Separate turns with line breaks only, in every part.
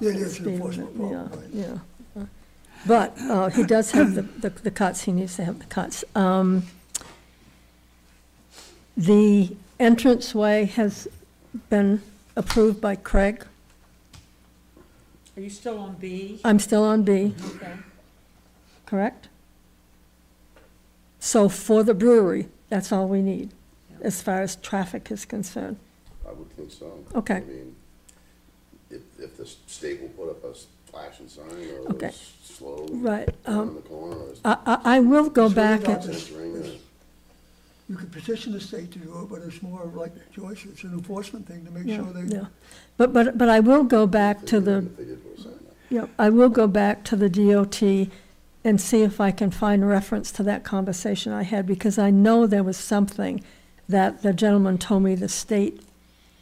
Yeah, there's an
being-
enforcement
yeah,
problem, right.
Yeah. But uh, he does have the- the the cuts, he needs to have the cuts. Um, The entranceway has been approved by Craig.
Are you still on B?
Uh,
I'm still on B,
Okay.
correct? So for the brewery, that's all we need, as far as traffic is concerned.
I would think so.
Okay.
I mean, if, if the state will put up a s- flashing sign or
Okay.
a s- slow
Right,
down
um,
in the corner or uh, s-
I, I, I will go
It's really
back,
not
and-
this-
censoring or-
this- You could petition the state to do it, but it's more like Joyce, it's an enforcement thing to make
yeah,
sure they,
yeah. But, but, but I will go back to the
If they did put a sign up.
Yeah, I will go back to the DOT and see if I can find reference to that conversation I had, because I know there was something that the gentleman told me the state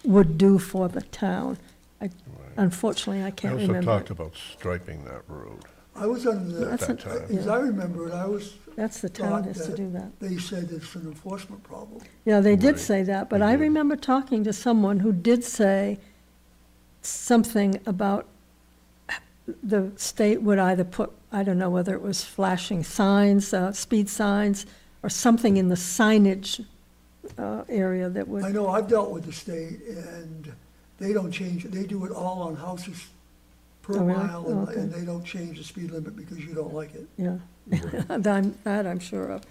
would do for the town. I- Unfortunately, I
We
can't
also
remember.
talked about striping that road.
I was under
That's
the,
That's
an-
a-
I- as I remember it, I was,
That's the town has to do that.
they said it's an enforcement problem.
Yeah, they did
Right.
say that, but
They
I
did.
remember talking to someone who did say something about the state would either put, I don't know whether it was flashing signs, uh, speed signs, or something in the signage, uh, area that
I
would,
know, I've dealt with the state, and they don't change, it. they do it all on houses per
Oh, really?
mile,
Oh,
and-
okay.
and they don't change the speed limit because you don't like it.
yeah. That I'm, that I'm sure of.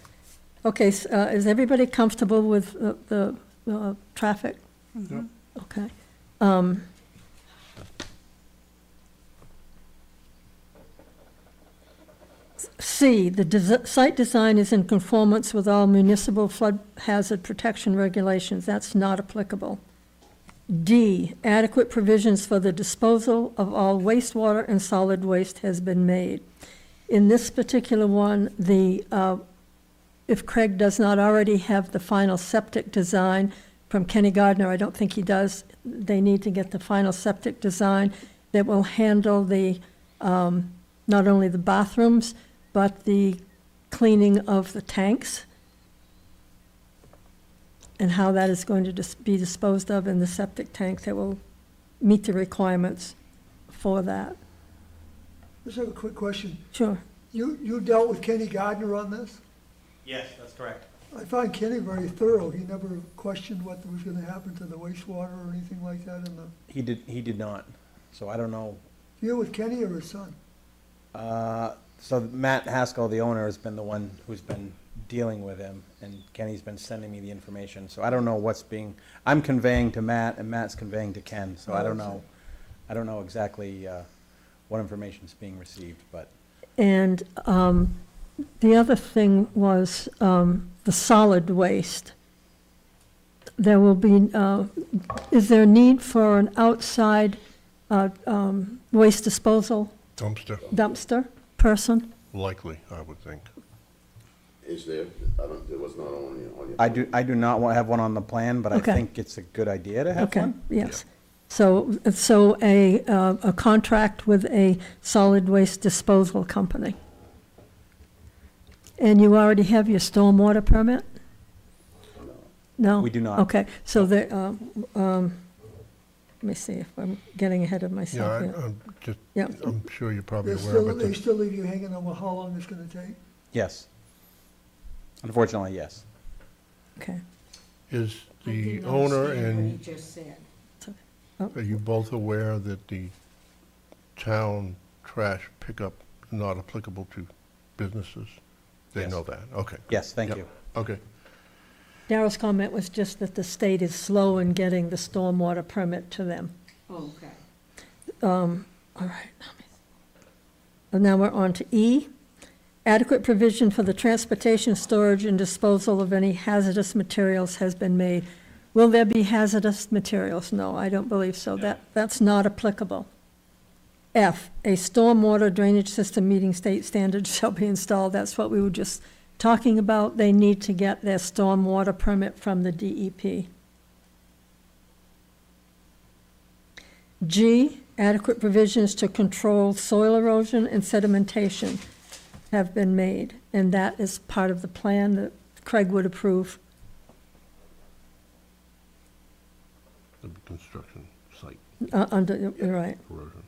Okay, s- uh, is everybody comfortable with the, the, uh, traffic?
Mm-hmm.
Okay. Um, C, the desi- site design is in conformance with all municipal flood hazard protection regulations. That's not applicable. D, adequate provisions for the disposal of all wastewater and solid waste has been made. In this particular one, the, uh, if Craig does not already have the final septic design from Kenny Gardner, I don't think he does, they need to get the final septic design that will handle the, um, not only the bathrooms, but the cleaning of the tanks and how that is going to dis- be disposed of in the septic tank that will meet the requirements for that.
Just have a quick question.
Sure.
You, you dealt with Kenny Gardner on this?
Yes, that's correct.
I find Kenny very thorough. He never questioned what was gonna happen to the wastewater or anything like that in the,
He did, he did not, so I don't know.
you with Kenny or his son?
Uh, So Matt Haskell, the owner, has been the one who's been dealing with him, and Kenny's been sending me the information, so I don't know what's being, I'm conveying to Matt, and Matt's conveying to Ken, so I don't know, I don't know exactly uh, what information's being received, but
And um, the other thing was um, the solid waste. There will be, uh, is there a need for an outside uh, um, waste disposal
Dumpster,
dumpster person?
likely, I would think.
Is there, I don't, there was not on your, on your.
I do, I do not wa- have one on the plan, but I
Okay.
think it's a good idea to have
Okay,
one.
yes. So, so a, uh, a contract with a solid waste disposal company. And you already have your stormwater permit? No?
We do not.
Okay, so the, um, um, let me see if I'm getting ahead of
Yeah, I-
myself here.
I'm just,
Yeah,
I'm sure you're probably
They
aware
still,
of
they
it.
still leave you hanging on how long it's gonna take?
Yes. Unfortunately, yes.
okay.
Is
I
the
didn't
owner
understand what
and,
he just said.
are you both aware that the town trash pickup is not applicable to businesses? They
Yes.
know that, okay.
Yes, thank
Yep.
you.
Okay,
Darrell's comment was just that the state is slow in getting the stormwater permit to them.
Oh, Okay.
All right. let me- And now we're on to E. Adequate provision for the transportation, storage, and disposal of any hazardous materials has been made. Will there be hazardous materials? No, I don't believe so. That, that's not applicable. F, a stormwater drainage system meeting state standards shall be installed. That's what we were just talking about. They need to get their stormwater permit from the E DEP. G, adequate provisions to control soil erosion and sedimentation have been made, and that is part of the plan that Craig would approve.
the construction site
Uh, under, you're right.
erosion.